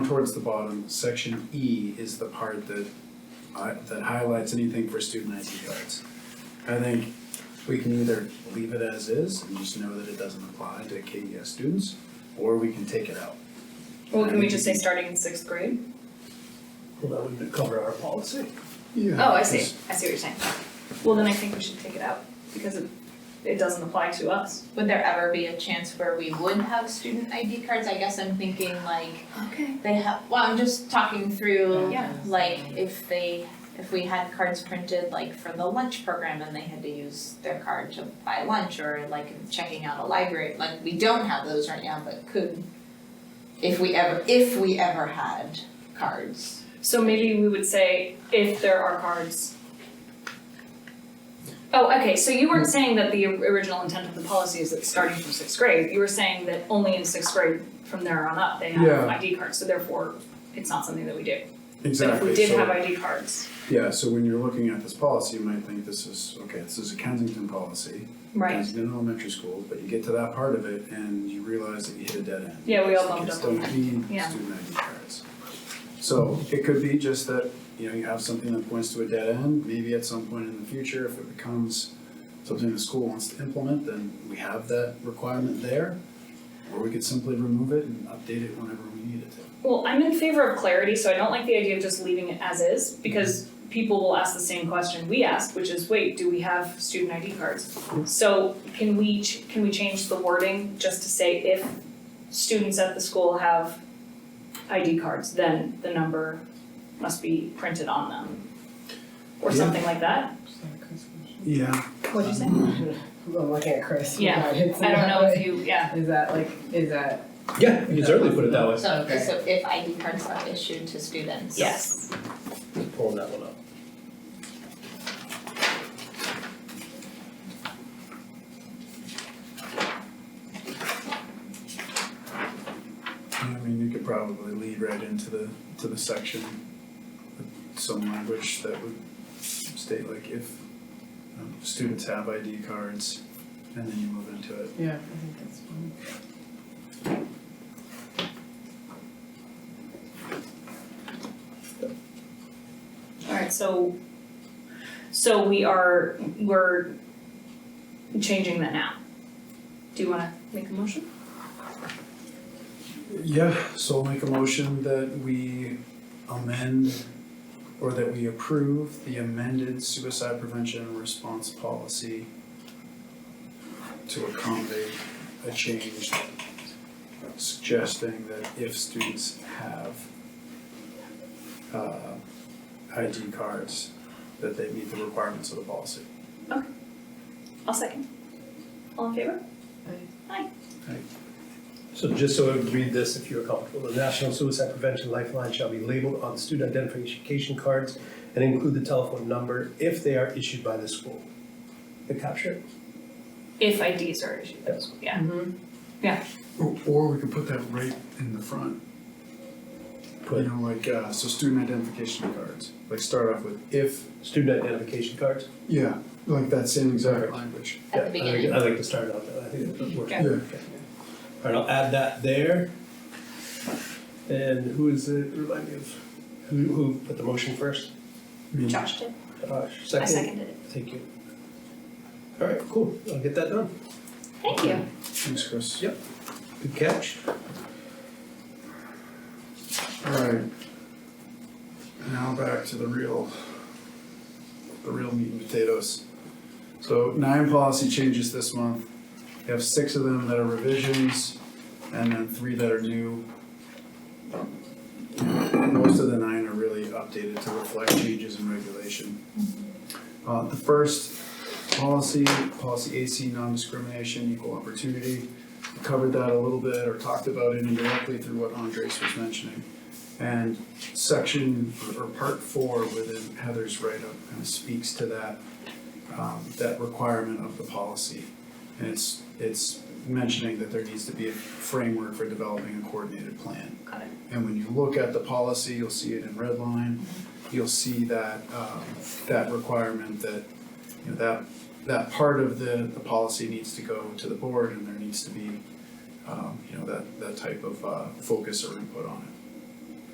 towards the bottom, section E is the part that I, that highlights anything for student ID cards. I think we can either leave it as is and just know that it doesn't apply to KES students, or we can take it out. Well, can we just say starting in sixth grade? Well, that would cover our policy. Yeah. Oh, I see, I see what you're saying. Well, then I think we should take it out, because it, it doesn't apply to us. Would there ever be a chance where we would have student ID cards? I guess I'm thinking like Okay. they have, well, I'm just talking through Yeah. like if they, if we had cards printed like for the lunch program and they had to use their card to buy lunch or like checking out a library, like we don't have those right now, but could if we ever, if we ever had cards. So maybe we would say if there are cards. Oh, okay, so you weren't saying that the original intent of the policy is that starting from sixth grade, you were saying that only in sixth grade from there on up, they have Yeah. ID cards, so therefore it's not something that we do. But if Exactly, we did so- have ID cards, Yeah, so when you're looking at this policy, you might think this is, okay, this is a Kensington policy. right, Kensington Elementary School, but you get to that part of it and you realize that you hit a dead end. Yeah, we all bumped Kids up on don't need Yeah. student ID cards. So it could be just that, you know, you have something that points to a dead end, maybe at some point in the future, if it becomes something the school wants to implement, then we have that requirement there. Or we could simply remove it and update it whenever we need it to. well, I'm in favor of clarity, so I don't like the idea of just leaving it as is, because people will ask the same question we asked, which is, wait, do we have student ID cards? So can we, ch- can we change the wording just to say if students at the school have ID cards, then the number must be printed on them? Or Yeah. something like that? Yeah, What'd you say? I'm looking at Chris. Yeah, I don't know if you, yeah, Is that like, is that? Yeah, you can certainly put it that way. So, Okay. so if ID cards are issued to students. yes. Pulling that one up. I mean, you could probably lead right into the, to the section, with some language that would state like if um, students have ID cards, and then you move into it. Yeah. I think that's fine. Alright, so, so we are, we're changing that now. Do you wanna make a motion? Yeah, so I'll make a motion that we amend or that we approve the amended suicide prevention and response policy to accommodate a change suggesting that if students have uh ID cards, that they meet the requirements of the policy. I'll second. All in favor? So just so I would read this, if you're comfortable, the National Suicide Prevention Lifeline shall be labeled on student identification cards and include the telephone number if they are issued by the school. The capture? it? If IDs are issued, Yes. yeah. Or or we could put that right in the front. You Put know, like, uh, so student identification cards, like start off with if, student identification cards. yeah, like that same exact language. At the Yeah, I think- beginning. I like to start out that, I think that works. Yeah. Yeah. All right, I'll add that there. And who is it, remind me of, who, who put the motion first? Me. Josh did. Josh, I second? seconded it. Thank you. All right, cool, I'll get that done. Thank you. Thanks, Chris. Yep. Good catch. Alright. Now back to the real, the real meat and potatoes. So nine policy changes this month. We have six of them that are revisions and then three that are new. Most of the nine are really updated to reflect changes in regulation. Uh, the first policy, policy AC non-discrimination, equal opportunity. We Covered that a little bit or talked about it indirectly through what Andres was mentioning. And section or or part four within Heather's write-up kind of speaks to that, um, that requirement of the policy. And it's, it's mentioning that there needs to be a framework for developing a coordinated plan. Got it. And when you look at the policy, you'll see it in red line, you'll see that, um, that requirement that, you know, that, that part of the, the policy needs to go to the board and there needs to be, um, you know, that, that type of, uh, focus or input on it.